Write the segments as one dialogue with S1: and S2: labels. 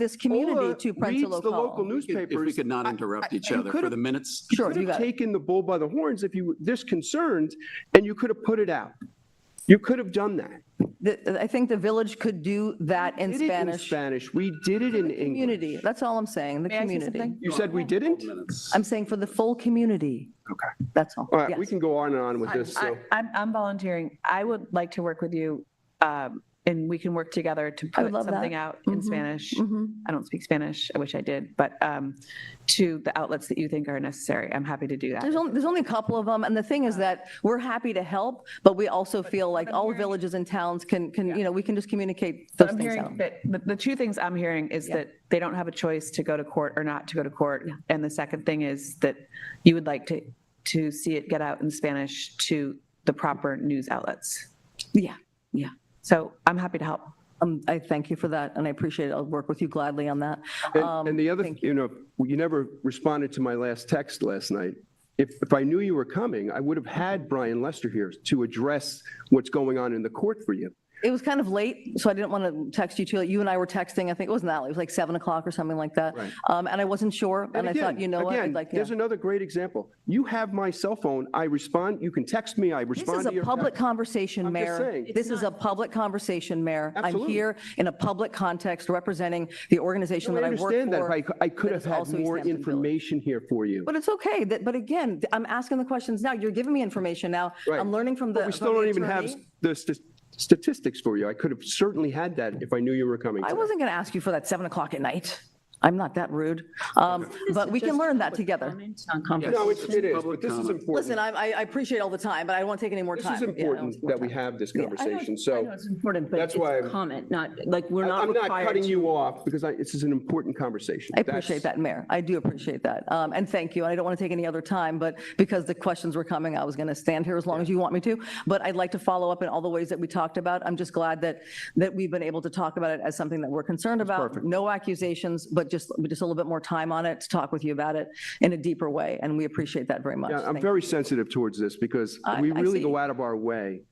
S1: this community
S2: Ola
S1: to
S2: reads
S1: Prensa
S2: the local
S1: Local.
S2: newspapers.
S3: If we could not
S2: I-
S3: interrupt
S2: I-
S3: each
S2: you
S3: other for
S2: could've-
S3: the minutes.
S2: You
S1: Sure,
S2: could
S1: you
S2: have
S1: got it.
S2: taken the bull by the horns if you were this concerned, and you could have put it out. You could have done that.
S1: The- I think the village could do that in
S2: Did it in
S1: Spanish.
S2: Spanish. We did it in English.
S1: Community, that's all I'm saying, the
S4: May I say
S1: community.
S4: something?
S2: You said we didn't?
S3: Minutes.
S1: I'm saying for the full community. Okay. That's all.
S2: All right, we
S1: Yes.
S2: can go on and on with this,
S4: I-
S2: so.
S4: I'm, I'm volunteering. I would like to work with you, um, and we can work together to
S1: I would
S4: put
S1: love that.
S4: something out in Spanish.
S1: Mhm.
S4: I don't speak Spanish. I wish I did, but um, to the outlets that you think are necessary. I'm happy to do that.
S1: There's only, there's only a couple of them, and the thing is that we're happy to help, but we also feel like all villages and towns can, can, you know, we can just communicate those
S4: I'm
S1: things
S4: hearing
S1: out.
S4: that, the, the two things I'm hearing is
S1: Yeah.
S4: that they don't have a choice to go to court or not to go to court. And the second thing is that you would like to, to see it get out in Spanish to the proper news outlets.
S1: Yeah, yeah.
S4: So I'm happy to help.
S1: Um, I thank you for that, and I appreciate it. I'll work with you gladly on that. Um,
S2: And and the other,
S1: thank
S2: you know, you never responded to my last text last night. If, if I knew you were coming, I would have had Brian Lester here to address what's going on in the court for you.
S1: It was kind of late, so I didn't want to text you too. late. You and I were texting, I think it wasn't that late, it was like 7 o'clock or something like that.
S2: Right.
S1: Um, And I wasn't sure, and I thought,
S2: again-
S1: you know what, I'd
S2: again,
S1: like, yeah.
S2: There's another great example. You have my cell phone. I respond, you can text me, I
S1: This
S2: respond
S1: is
S2: to
S1: a
S2: your.
S1: public conversation,
S2: I'm just
S1: Mayor.
S2: saying.
S1: This is a public conversation, Mayor. I'm
S2: Absolutely.
S1: here in a public context representing the organization
S2: I
S1: that I work for.
S2: understand that. but I, cou- I could
S1: that
S2: have
S1: is
S2: had
S1: also East
S2: more
S1: Hampton Village.
S2: information here for you.
S1: But it's okay, that, but again, th- I'm asking the questions now, you're giving me information now,
S2: Right.
S1: I'm learning from the.
S2: But we
S1: from
S2: still
S1: the
S2: don't even have
S1: attorney.
S2: s- the st- statistics for you. I could have certainly had that if I knew you were coming.
S1: I
S2: today.
S1: wasn't going to ask you for that 7 o'clock at night. I'm not that rude, Um, but we can learn that together.
S2: No, it's- it is, but
S3: Public
S2: this is
S3: comment.
S2: important.
S1: Listen, I, I I appreciate all the time, but I don't want to take any more
S2: This
S1: time.
S2: is
S1: Yeah, I don't
S2: important
S1: want more
S2: that we
S1: time.
S2: have this
S5: I know-
S2: conversation,
S5: I
S2: so
S5: know it's important, but
S2: that's
S5: it's
S2: why
S5: a
S2: I'm-
S5: comment, not, like, we're not
S2: I'm not
S5: required
S2: cutting
S5: to.
S2: you off because I, this is an important conversation.
S1: I appreciate that, Mayor. I do appreciate that. Um, And thank you. And I don't want to take any other time, but because the questions were coming, I was going to stand here as long as you want me to. But I'd like to follow up in all the ways that we talked about. I'm just glad that, that we've been able to talk about it as something that we're concerned about.
S2: perfect.
S1: No accusations, but just, just a little bit more time on it to talk with you about it in a deeper way. And we appreciate that very much.
S2: Yeah, I'm
S1: Thank-
S2: very sensitive towards this because
S1: I-
S2: we
S1: I
S2: really
S1: see.
S2: go out of our way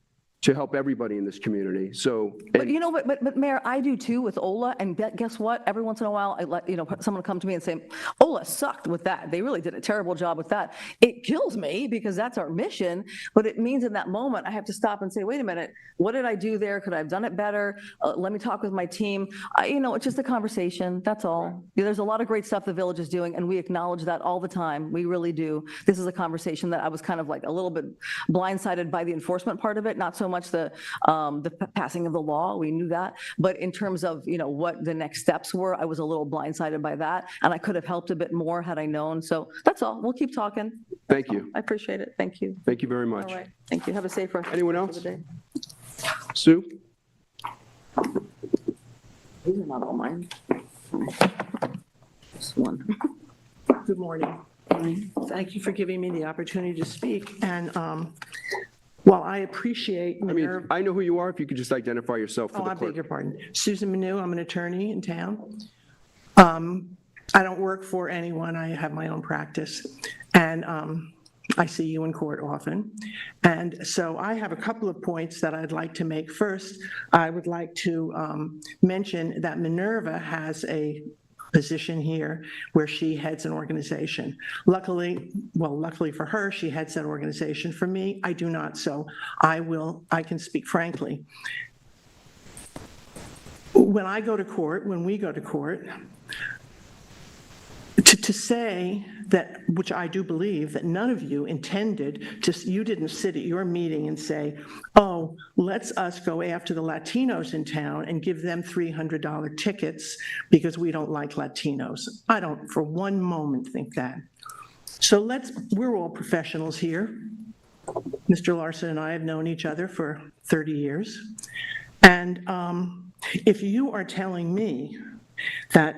S2: to help everybody in this community, so.
S1: But you know, what? but, but Mayor, I do too with Ola, and bet- guess what? Every once in a while, I let, you know, someone will come to me and say, Ola sucked with that. They really did a terrible job with that. It kills me because that's our mission, but it means in that moment, I have to stop and say, wait a minute, what did I do there? Could I have done it better? Uh, Let me talk with my team. I- You know, it's just a conversation, that's all. Yeah, There's a lot of great stuff the village is doing, and we acknowledge that all the time. We really do. This is a conversation that I was kind of like a little bit blindsided by the enforcement part of it, not so much the, um, the p- passing of the law, we knew that. But in terms of, you know, what the next steps were, I was a little blindsided by that, and I could have helped a bit more had I known. So that's all. We'll keep talking.
S2: Thank you.
S1: I appreciate it. Thank you.
S2: Thank you very much.
S1: All right. Thank you. Have a safe rest.
S2: Anyone
S1: of the
S2: else?
S1: day.
S2: Sue?
S5: These are not all mine. Just one.
S6: Good morning. Thank you for giving me the opportunity to speak. And um, while I appreciate
S2: I mean,
S6: Mayor,
S2: I know who you are. If you could just identify yourself for
S6: oh,
S2: the
S6: I beg your
S2: clerk.
S6: pardon, Susan Manu, I'm an attorney in town. Um, I don't work for anyone, I have my own practice. And um, I see you in court often. And so I have a couple of points that I'd like to make. First, I would like to um, mention that Minerva has a position here where she heads an organization. Luckily, well, luckily for her, she heads that organization. For me, I do not, so I will, I can speak frankly. When I go to court, when we go to court, to, to say that, which I do believe, that none of you intended to, you didn't sit at your meeting and say, oh, let's us go after the Latinos in town and give them $300 tickets because we don't like Latinos. I don't for one moment think that. So let's, we're all professionals here. Mr. Larson and I have known each other for 30 years. And um, if you are telling me that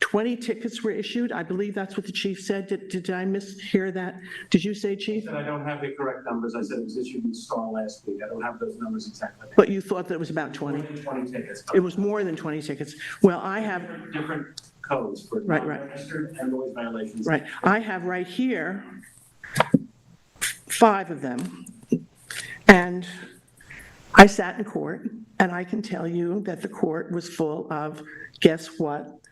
S6: 20 tickets were issued, I believe that's what the chief said, did did I mishear that? Did you say, chief?
S7: And I don't have the correct numbers. I said it was issued in Star last week. I don't have those numbers exactly.
S6: But you thought that it was about 20?
S7: 20 tickets.
S6: It was more than 20 tickets. Well, I have,
S7: Different- Different codes for
S6: Right, right.
S7: non-registered and noise violations.
S6: right, I have right here five of them. And I sat in court, and I can tell you that the court was full of, guess what?